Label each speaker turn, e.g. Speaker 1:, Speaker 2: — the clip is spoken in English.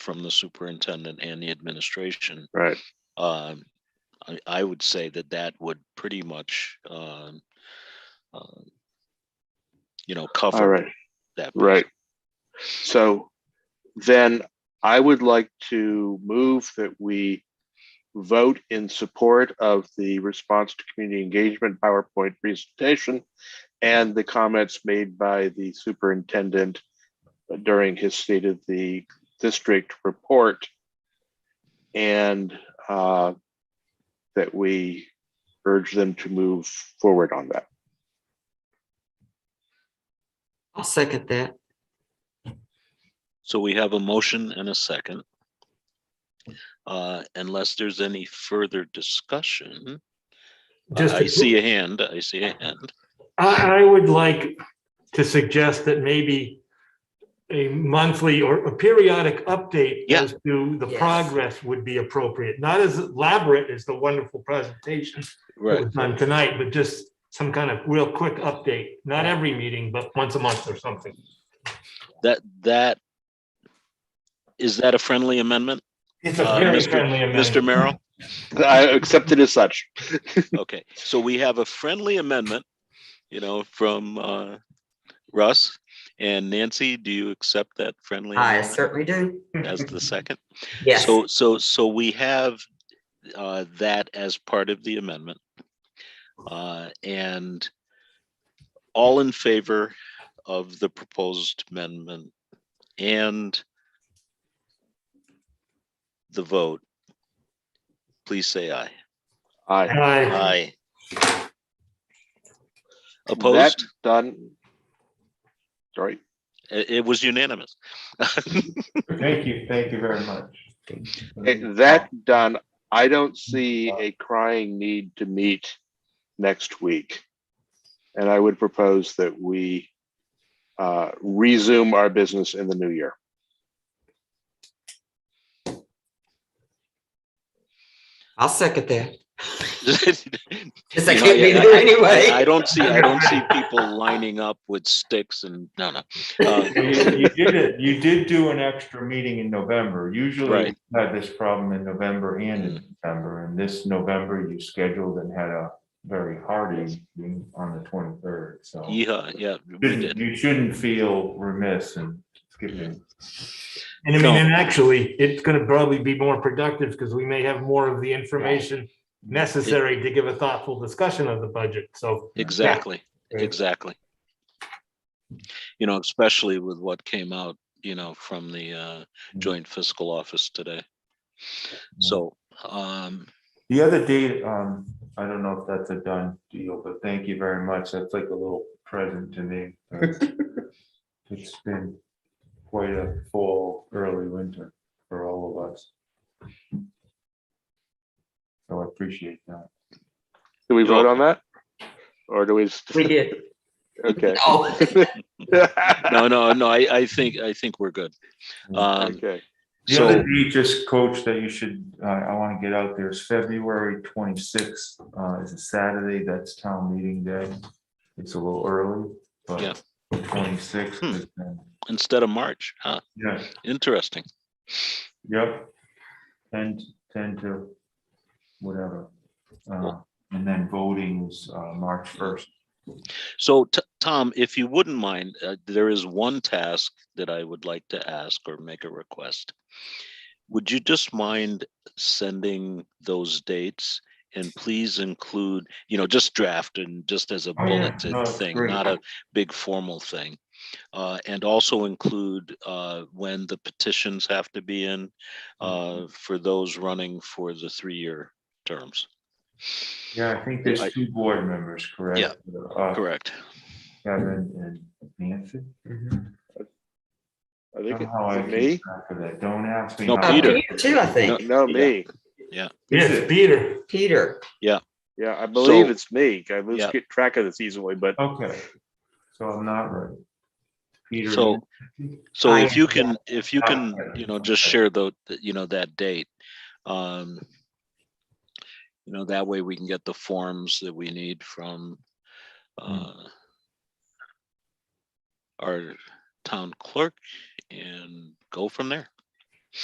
Speaker 1: from the superintendent and the administration.
Speaker 2: Right.
Speaker 1: Um, I, I would say that that would pretty much, um, um, you know,
Speaker 2: All
Speaker 1: cover
Speaker 2: right.
Speaker 1: that. piece.
Speaker 2: Right. So then I would like to move that we vote in support of the response to community engagement PowerPoint presentation and the comments made by the superintendent during his state of the district report. And uh, that we urge them to move forward on that.
Speaker 3: I'll second that.
Speaker 1: So we have a motion and a second. Uh, unless there's any further discussion,
Speaker 4: Just,
Speaker 1: I see a hand, I see a hand.
Speaker 4: I, I would like to suggest that maybe a monthly or a periodic update
Speaker 1: Yeah.
Speaker 4: as to the
Speaker 3: Yes.
Speaker 4: progress would be appropriate, not as elaborate as the wonderful presentation that
Speaker 1: Right,
Speaker 4: was done tonight, but just some kind of real quick update, not every meeting, but once a month or something.
Speaker 1: that, that, is that a friendly amendment,
Speaker 4: It's a
Speaker 1: Uh,
Speaker 4: very
Speaker 1: Mr.
Speaker 4: friendly
Speaker 1: Mr.
Speaker 4: amendment.
Speaker 1: Merrill?
Speaker 2: I accept it as such.
Speaker 1: Okay, so we have a friendly amendment, you know, from uh, Russ. And Nancy, do you accept that friendly
Speaker 3: I
Speaker 1: amendment
Speaker 3: certainly do.
Speaker 1: as the second?
Speaker 3: Yes.
Speaker 1: So, so, so we have uh, that as part of the amendment. Uh, And all in favor of the proposed amendment and the vote, please say aye.
Speaker 2: Aye.
Speaker 4: Aye.
Speaker 1: Aye.
Speaker 2: That
Speaker 1: Opposed?
Speaker 2: Done. Sorry.
Speaker 1: It, it was unanimous.
Speaker 5: Thank you, thank you very much.
Speaker 2: Okay, eh, That done, I don't see a crying need to meet next week. And I would propose that we uh, resume our business in the new year.
Speaker 3: I'll second that.
Speaker 1: I,
Speaker 3: Because I
Speaker 1: You know,
Speaker 3: can't be
Speaker 1: yeah,
Speaker 3: there anyway.
Speaker 1: I don't see, I don't see people lining up with sticks and, no, no. Uh,
Speaker 5: You you did it, you did do an extra meeting in November. Usually
Speaker 1: Right. Mm.
Speaker 5: we had this problem in November and in December, and this November you scheduled and had a very hearty meeting on the twenty-third, so.
Speaker 1: Yeah, yeah, we
Speaker 5: shouldn't-
Speaker 1: did.
Speaker 5: You shouldn't feel remiss in skipping.
Speaker 4: And I
Speaker 1: No.
Speaker 4: mean, and actually, it's gonna probably be more productive because we may have more of the information necessary to give a thoughtful discussion of the budget, so.
Speaker 1: Exactly,
Speaker 4: Right.
Speaker 1: exactly. You know, especially with what came out, you know, from the uh, joint fiscal office today. So, um,
Speaker 5: The other date, um, I don't know if that's a done deal, but thank you very much. That's like a little present to me. It's been quite a full early winter for all of us. So I appreciate that.
Speaker 2: Do we vote on that? Or do we? s-
Speaker 3: We did.
Speaker 2: Okay.
Speaker 3: Oh,
Speaker 1: no, no, no, I, I think, I think we're good. Um,
Speaker 2: Okay.
Speaker 5: The other
Speaker 1: so,
Speaker 5: date, just coach that you should, uh, I want to get out there is February twenty-sixth, uh, is a Saturday. That's town meeting day. It's a little early,
Speaker 1: Yeah.
Speaker 5: but twenty-sixth.
Speaker 1: Hmm.
Speaker 5: is uh, then-
Speaker 1: instead of March, huh,
Speaker 5: Yeah.
Speaker 1: interesting.
Speaker 5: Yep. Ten, ten to whatever. Uh,
Speaker 1: Cool.
Speaker 5: and then voting's, uh, March first.
Speaker 1: So, T- Tom, if you wouldn't mind, uh, there is one task that I would like to ask or make a request. Would you just mind sending those dates? And please include, you know, just draft and just as a
Speaker 5: Oh, yeah. No,
Speaker 1: bulleted
Speaker 5: it's
Speaker 1: thing,
Speaker 5: great.
Speaker 1: not a big formal thing. Uh, And also include uh, when the petitions have to be in
Speaker 5: Mm-hmm.
Speaker 1: uh, for those running for the three-year terms.
Speaker 5: Yeah, I think there's
Speaker 1: I-
Speaker 5: two board members, correct?
Speaker 1: Yeah,
Speaker 5: Uh,
Speaker 1: Correct.
Speaker 5: Kevin and Nancy.
Speaker 2: I think
Speaker 5: Somehow I
Speaker 2: it's
Speaker 5: keep
Speaker 2: me.
Speaker 5: track of that. Don't ask me.
Speaker 1: No,
Speaker 5: how.
Speaker 3: uh,
Speaker 1: Peter.
Speaker 3: Peter too, I think.
Speaker 2: No, me.
Speaker 4: Yes, Peter.
Speaker 3: Peter.
Speaker 2: Yeah, I believe
Speaker 1: So-
Speaker 2: it's me. I lose
Speaker 1: Yeah.
Speaker 2: get track of this easily, but
Speaker 5: Okay, so I'm not right. Peter.
Speaker 1: So, so if
Speaker 5: I-
Speaker 1: you can, if you can,
Speaker 5: Okay.
Speaker 1: you know, just share the, the- you know, that date. um You know, that way we can get the forms that we need from uh our town clerk and go from there.